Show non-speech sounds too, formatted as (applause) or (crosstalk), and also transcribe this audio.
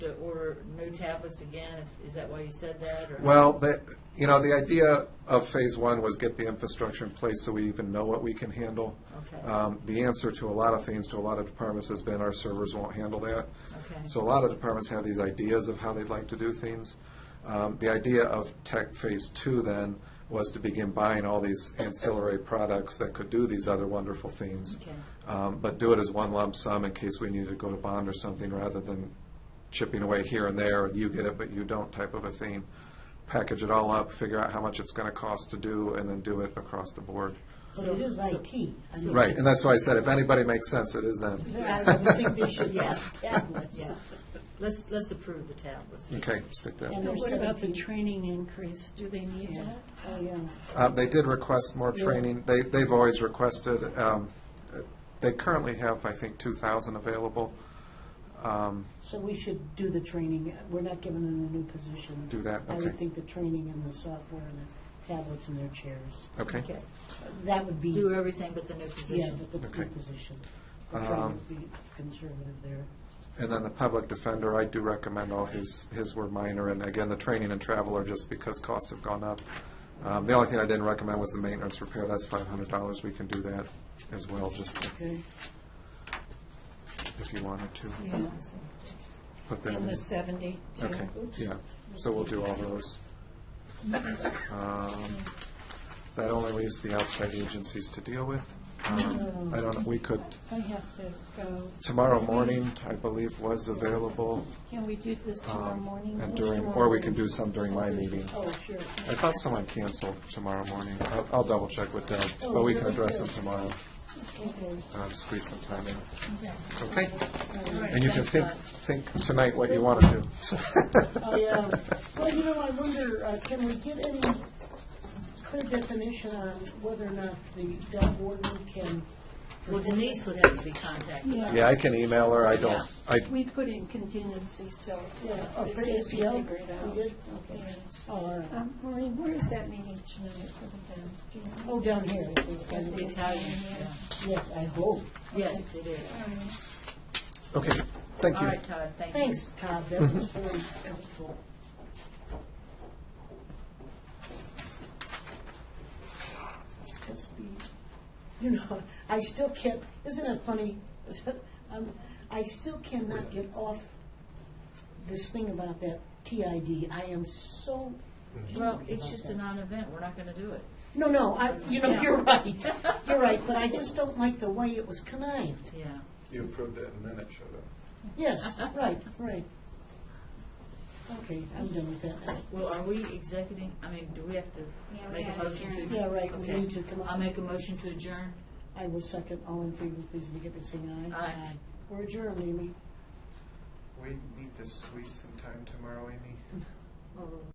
to order new tablets again? If- Is that why you said that? or- Well, the, you know, the idea of phase one was get the infrastructure in place so we even know what we can handle. Okay. Um, The answer to a lot of things, to a lot of departments has been our servers won't handle that. Okay. So a lot of departments have these ideas of how they'd like to do things. Um, The idea of tech phase two then was to begin buying all these ancillary products that could do these other wonderful things. Okay. Um, But do it as one lump sum in case we needed to go to bond or something rather than chipping away here and there and you get it but you don't type of a thing. Package it all up, figure out how much it's going to cost to do and then do it across the board. But it is So- IT. I mean, Right, and that's why I said if anybody makes sense, it is them. (laughs) I would think they should have tablets. Yeah. Let's, let's approve the tablets. Okay, stick And that. they're What about the 17. training increase? Do they need Yeah. that? Oh, yeah. Uh, They did request more training. They, they've always requested, um, they currently have, I think, 2,000 available. Um, So we should do the training. We're not giving them a new position. Do that, I okay. would think the training and the software and the tablets and their chairs. Okay. Okay. That would be, Do everything but the new yeah, position. the the Okay. new position. We're trying Um, to be conservative there. And then the public defender, I do recommend all his, his were minor, and again, the training and travel are just because costs have gone up. Um, The only thing I didn't recommend was the maintenance repair, that's five hundred dollars, we can do that as well, just Okay. if you wanted to Yeah. put that In the in. 70? too? Okay, yeah, so we'll do all those. Um, That only leaves the outside agencies to deal with. Um, I don't know, we could, I have to go. tomorrow morning, I believe, was available, Can we do this tomorrow um, morning? and during, or we can do some during my meeting. Oh, sure. I thought someone canceled tomorrow morning. I'll, I'll double check with Deb, Oh, but we can address them tomorrow, Okay. um, squeeze some time in. Okay? All right, And you can thanks, think, Todd. think tonight what you want to do. Oh, I, um, Well, you know, I wonder, uh, can we get any clear definition on whether or not the dog warden can, Well, Denise would have to be contacted. (laughs) Yeah, I can email her. I Yeah. don't, I, We put in contingency, so Yeah, Oh, uh, or as for soon as we APL. figure it out. We did? Okay. Yeah. oh, all right. Um, Maureen, where is that meeting tonight for the town? Do you know? oh, down here, I think, I The think. Italian, yeah. yes, I hope. Yes, it is. okay, thank All you. right, Todd, thank you. Thanks, Todd, that was very helpful. Just be, you know, I still can't, isn't it funny? (laughs) Um, I still cannot get off this thing about that TID. I am so, Well, it's just a non-event, we're not gonna do it. (laughs) no, no, I, you know, Yeah. you're right. (laughs) You're right, but I just don't like the way it was connived. Yeah. You approved it and then it showed up. Yes, right, right. Okay, I'm done with that now. Well, are we executing, I mean, do we have Yeah, to we make a gotta motion to? adjourn. Yeah, right, we Okay. need to come up- I'll make a motion to adjourn. I will second. All in favor, please indicate by saying aye. Aye. We're adjourned, Amy. We need to squeeze some time tomorrow, Amy.